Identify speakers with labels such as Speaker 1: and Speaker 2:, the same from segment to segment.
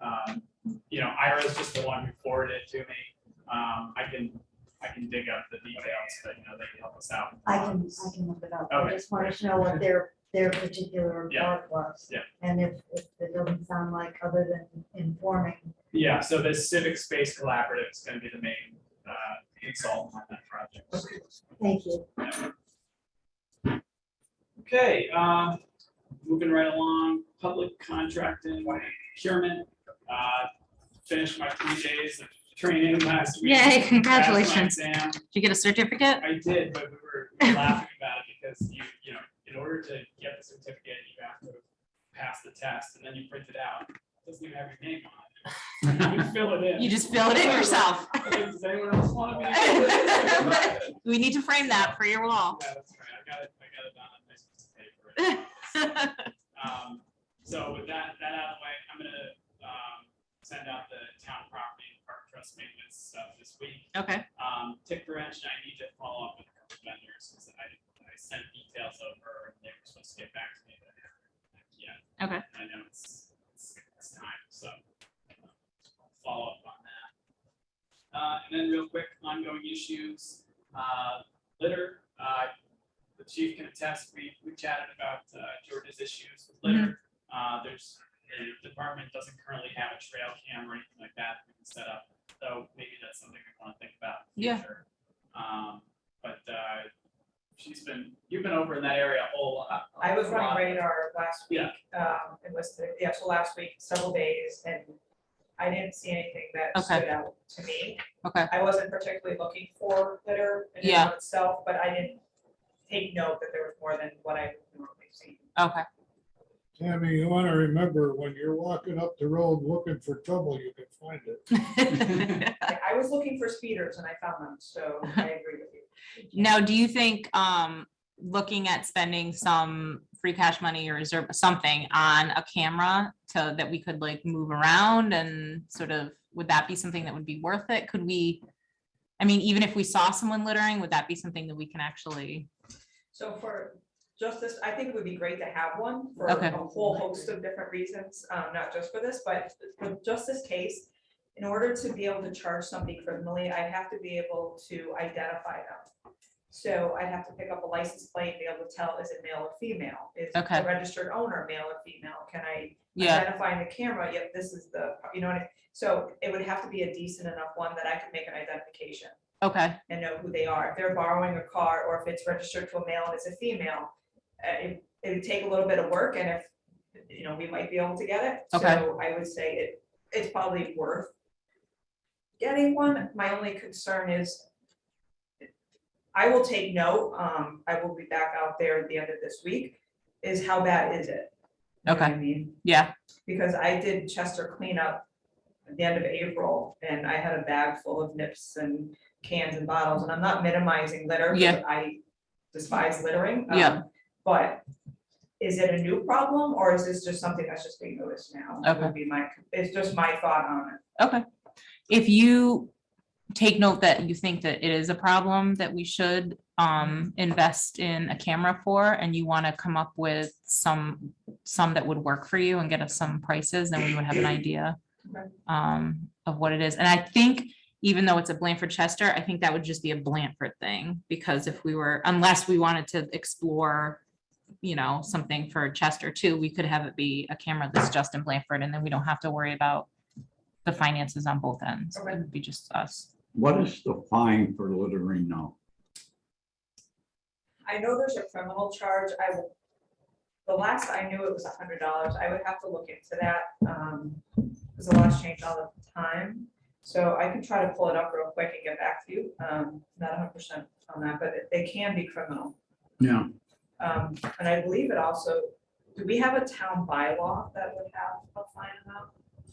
Speaker 1: Um, you know, Ira's just the one who forwarded it to me. Um, I can, I can dig up the details, but you know, they can help us out.
Speaker 2: I can, I can look it up. I
Speaker 1: Okay.
Speaker 2: just wanted to know what their, their particular
Speaker 1: Yeah.
Speaker 2: report was.
Speaker 1: Yeah.
Speaker 2: And if, if it doesn't sound like other than informing,
Speaker 1: Yeah, so the Civic Space Collaborative is gonna be the main, uh, consultant on that project.
Speaker 2: thank you.
Speaker 1: Okay, uh, moving right along, public contracting, procurement, uh, finished my three days of training last week.
Speaker 3: Yay,
Speaker 1: Passed my
Speaker 3: congratulations.
Speaker 1: exam.
Speaker 3: you get a certificate?
Speaker 1: I did, but we were laughing about it because you, you know, in order to get the certificate, you have to pass the test and then you print it out. It Doesn't even have your name on it. You fill it in.
Speaker 3: You just fill it in yourself.
Speaker 1: Does anyone else want to be?
Speaker 3: We need to frame that for your wall.
Speaker 1: Yeah, that's right. I got it, I got it on a nice piece of paper. Um, so with that, that out of the way, I'm gonna, um, send out the town property and park trust maintenance stuff this week.
Speaker 3: Okay,
Speaker 1: Um, Tick Branch, I need to follow up with a couple vendors, because I, I sent details over, and they were supposed to get back to me, but I haven't heard back yet.
Speaker 3: Okay.
Speaker 1: I know it's, it's, it's time, so, um, follow up on that. Uh, and then real quick, ongoing issues, uh, litter, uh, the chief can attest, we, we chatted about, uh, George's issues with litter. Uh, there's, the department doesn't currently have a trail cam or anything like that we can set up. So maybe that's something we want to think about. in the
Speaker 3: Yeah.
Speaker 1: future. Um, but, uh, she's been, you've been over in that area a whole lot.
Speaker 4: I was
Speaker 1: a lot.
Speaker 4: running radar last week,
Speaker 1: Yeah.
Speaker 4: um, it was, the- yeah, so last week, several days, and I didn't see anything that
Speaker 3: Okay.
Speaker 4: stood out to me.
Speaker 3: okay,
Speaker 4: I wasn't particularly looking for litter in and
Speaker 3: Yeah.
Speaker 4: of itself, but I didn't take note that there was more than what I normally see.
Speaker 3: okay.
Speaker 5: Tammy, you want to remember, when you're walking up the road looking for trouble, you can find it.
Speaker 4: I I was looking for speeders and I found them, so I agree with you.
Speaker 3: Now, do you think, um, looking at spending some free cash money or reserve, something on a camera so that we could like move around and sort of, would that be something that would be worth it? Could we? I mean, even if we saw someone littering, would that be something that we can actually?
Speaker 4: So for justice, I think it would be great to have one for
Speaker 3: Okay.
Speaker 4: a whole host of different reasons, um, not just for this, but for just this case. In order to be able to charge somebody criminally, I have to be able to identify them. So I have to pick up a license plate, be able to tell, is it male or female? Is the
Speaker 3: Okay.
Speaker 4: registered owner male or female? Can I
Speaker 3: Yeah,
Speaker 4: identifying the camera, yep, this is the, you know, what I- so it would have to be a decent enough one that I could make an identification
Speaker 3: okay,
Speaker 4: and know who they are. If they're borrowing a car or if it's registered to a male and it's a female, uh, it, it'd take a little bit of work and if, you know, we might be able to get it.
Speaker 3: Okay.
Speaker 4: So I would say it, it's probably worth getting one. My only concern is I will take note, um, I will be back out there at the end of this week, is how bad is it? You know what I mean,
Speaker 3: yeah,
Speaker 4: because I did Chester cleanup at the end of April, and I had a bag full of nips and cans and bottles, and I'm not minimizing litter. 'cause
Speaker 3: Yeah.
Speaker 4: I despise littering. um,
Speaker 3: Yeah.
Speaker 4: But is it a new problem, or is this just something that's just being noticed now? Would
Speaker 3: Okay.
Speaker 4: Be my, it's just my thought on it.
Speaker 3: okay. If you take note that you think that it is a problem that we should um invest in a camera for and you want to come up with some some that would work for you and get us some prices, then we would have an idea
Speaker 4: Okay.
Speaker 3: um of what it is. And I think even though it's a Blanford Chester, I think that would just be a Blanford thing because if we were, unless we wanted to explore you know, something for Chester too, we could have it be a camera that's just in Blanford and then we don't have to worry about the finances on both ends. It
Speaker 4: Okay.
Speaker 3: would be just us.
Speaker 6: What is the fine for littering now?
Speaker 4: I know there's a criminal charge, I will, the last I knew it was a hundred dollars, I would have to look into that, um, because the laws change all the time. So I can try to pull it up real quick and get back to you, um, not hundred percent on that, but it- they can be criminal.
Speaker 6: Yeah.
Speaker 4: Um, and I believe it also, do we have a town bylaw that would have a fine amount?
Speaker 1: So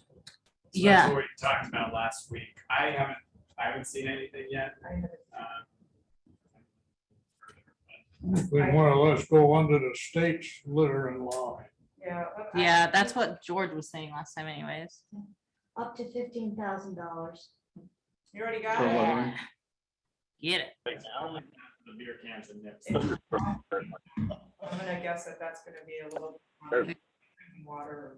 Speaker 3: Yeah.
Speaker 1: That's what we talked about last week. I haven't, I haven't seen anything yet.
Speaker 4: I haven't-
Speaker 1: um,
Speaker 5: We more or less go under the state's littering law.
Speaker 4: Yeah. but I-
Speaker 3: Yeah, that's what George was saying last time anyways.
Speaker 2: Up to fifteen thousand dollars.
Speaker 4: You already got
Speaker 6: For
Speaker 4: it?
Speaker 6: what?
Speaker 3: Get it.
Speaker 1: it's only The beer cans and nips.
Speaker 4: I'm gonna guess that that's gonna be a little. um, Water.